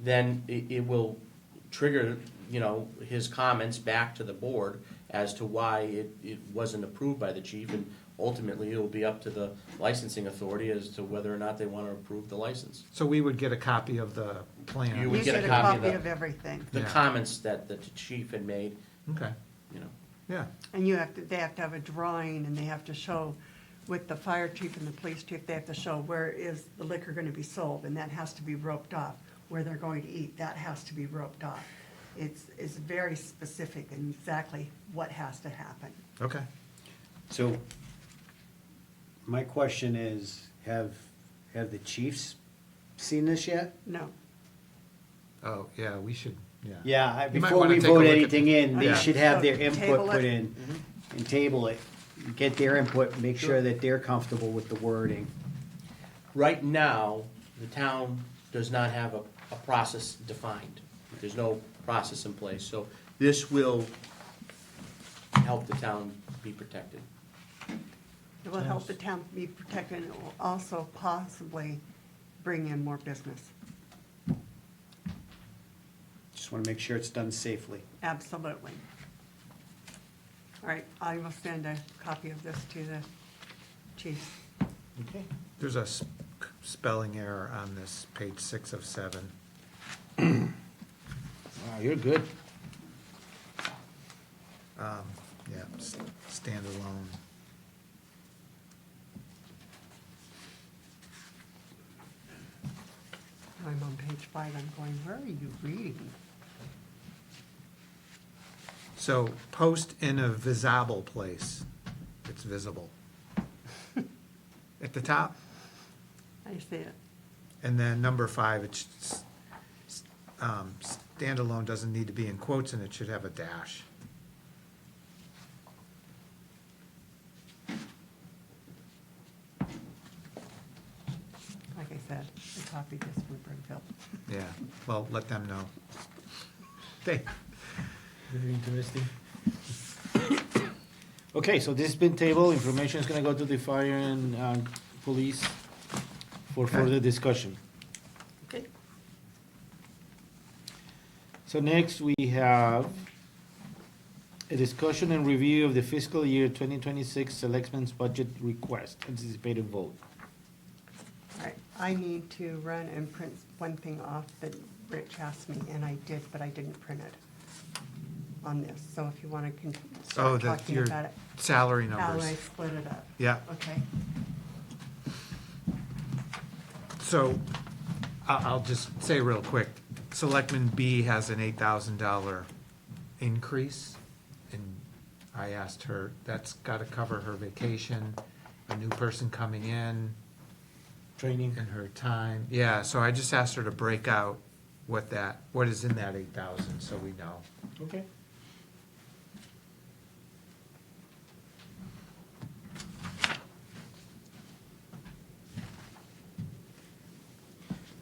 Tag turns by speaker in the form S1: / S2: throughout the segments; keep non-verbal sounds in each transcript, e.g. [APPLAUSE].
S1: then it, it will trigger, you know, his comments back to the board as to why it, it wasn't approved by the chief, and ultimately, it'll be up to the licensing authority as to whether or not they wanna approve the license.
S2: So we would get a copy of the
S1: You
S2: plan.
S1: would-
S3: You
S1: get a
S3: should
S1: copy
S3: have
S1: of that.
S3: of everything.
S1: The
S2: Yeah.
S1: comments that, that the chief had made,
S2: Okay,
S1: you know,
S2: yeah,
S3: And you have to, they have to have a drawing and they have to show with the fire chief and the police chief, they have to show where is the liquor gonna be sold and that has to be roped off. Where they're going to eat, that has to be roped off. It's, it's very specific and exactly what has to happen.
S2: okay.
S4: So, my question is, have, have the chiefs seen this yet?
S3: No,
S2: Oh, yeah, we should, yeah.
S4: Yeah, I-
S2: You might
S4: before
S2: wanna
S4: we
S2: take a
S4: vote
S2: look at
S4: anything
S2: the-
S4: in, they
S2: Yeah.
S4: should have their
S3: So,
S4: input
S3: table it.
S4: put in
S5: Mm-hmm.
S4: and table it. Get their input, make sure that they're comfortable with the wording.
S1: Right now, the town does not have a, a process defined. There's no process in place, so this will help the town be protected.
S3: it will help the town be protected and it will also possibly bring in more business.
S4: Just wanna make sure it's done safely.
S3: Absolutely. All right, I will send a copy of this to the chiefs.
S4: Okay.
S2: There's a s- spelling error on this, page six of seven.
S5: Wow, you're good.
S2: Um, Yeah, s- standalone.
S3: I'm on page five, I'm going, where are you reading?
S2: So post in a visible place, it's visible. At the top,
S3: I see it.
S2: and then number five, it's, s- s- um, standalone doesn't need to be in quotes and it should have a dash.
S3: Like I said, I copied this from Brimfield.
S2: Yeah, well, let them know. They,
S5: Interesting. [COUGHS] Okay, so this has been tabled, information is gonna go to the fire and, uh police for
S2: Okay.
S5: further discussion.
S3: Okay.
S5: So next, we have a discussion and review of the fiscal year twenty twenty-six selectmen's budget request, anticipated vote.
S3: All right, I need to run and print one thing off that Rich asked me, and I did, but I didn't print it on this. So if you want to con-
S2: oh,
S3: start
S2: the,
S3: talking
S2: your
S3: about it.
S2: salary
S3: How
S2: numbers.
S3: I split it up.
S2: Yeah.
S3: Okay.
S2: So I- I'll just say real quick, Selectman B has an $8,000 increase. And I asked her, that's got to cover her vacation, a new person coming in,
S5: Training.
S2: and her time. Yeah, so I just asked her to break out what that, what is in that 8,000, so we know.
S5: Okay.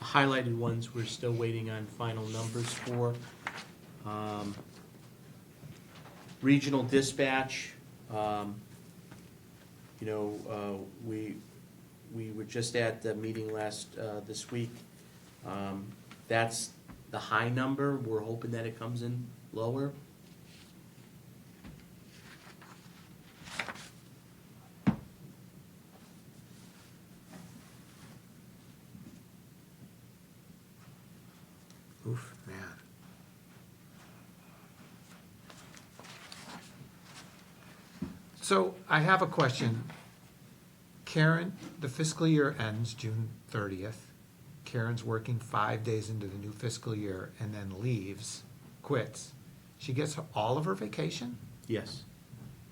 S1: Highlighted ones, we're still waiting on final numbers for. Um, Regional dispatch, um, you know, uh, we, we were just at the meeting last, uh, this week. Um, That's the high number, we're hoping that it comes in lower.
S2: Oof, man. So I have a question. Karen, the fiscal year ends June thirtieth. Karen's working five days into the new fiscal year and then leaves, quits. She gets all of her vacation?
S1: Yes.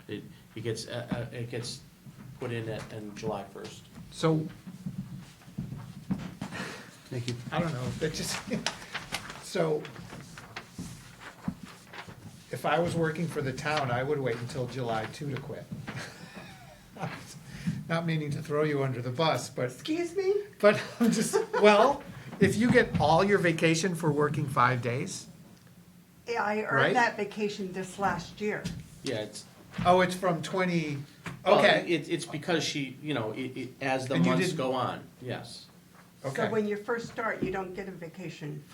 S1: It, it gets, uh, uh, it gets put in at, in July first.
S2: So,
S4: Thank you.
S2: I don't know, that just, [LAUGHS] so if I was working for the town, I would wait until July two to quit. [LAUGHS] Not meaning to throw you under the bus, but,
S3: Excuse me?
S2: but I'm just, well, if you get all your vacation for working five days,
S3: Yeah, I
S2: Right?
S3: earned that vacation this last year.
S1: Yeah, it's.
S2: oh, it's from twenty,
S1: well,
S2: okay,
S1: It, it's because she, you know, it, it, as the
S2: And you
S1: months
S2: didn't-
S1: go on, yes.
S3: So
S2: okay.
S3: when you first start, you don't get a vacation